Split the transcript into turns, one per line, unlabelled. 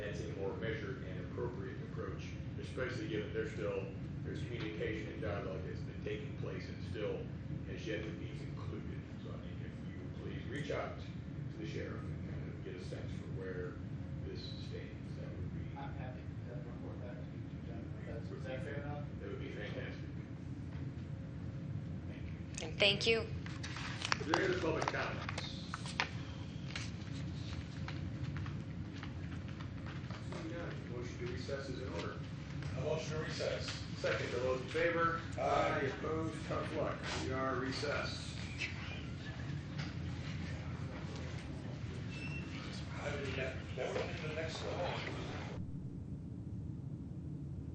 especially given there's still, there's communication and dialogue that's been taking place and still has yet to be concluded. So I think if you would please reach out to the sheriff and kind of get a sense for where this stands, that would be,
I'm happy to report back to you, John. That's, is that fair enough?
that would be fantastic.
Thank you.
And thank you.
Is there any other public comments? Seeing none, motion to recess is in order.
A motion to recess.
Second, all those in favor?
Aye.
Any Opposed, tough luck, we are recessed.
I would, that, that would be the next one.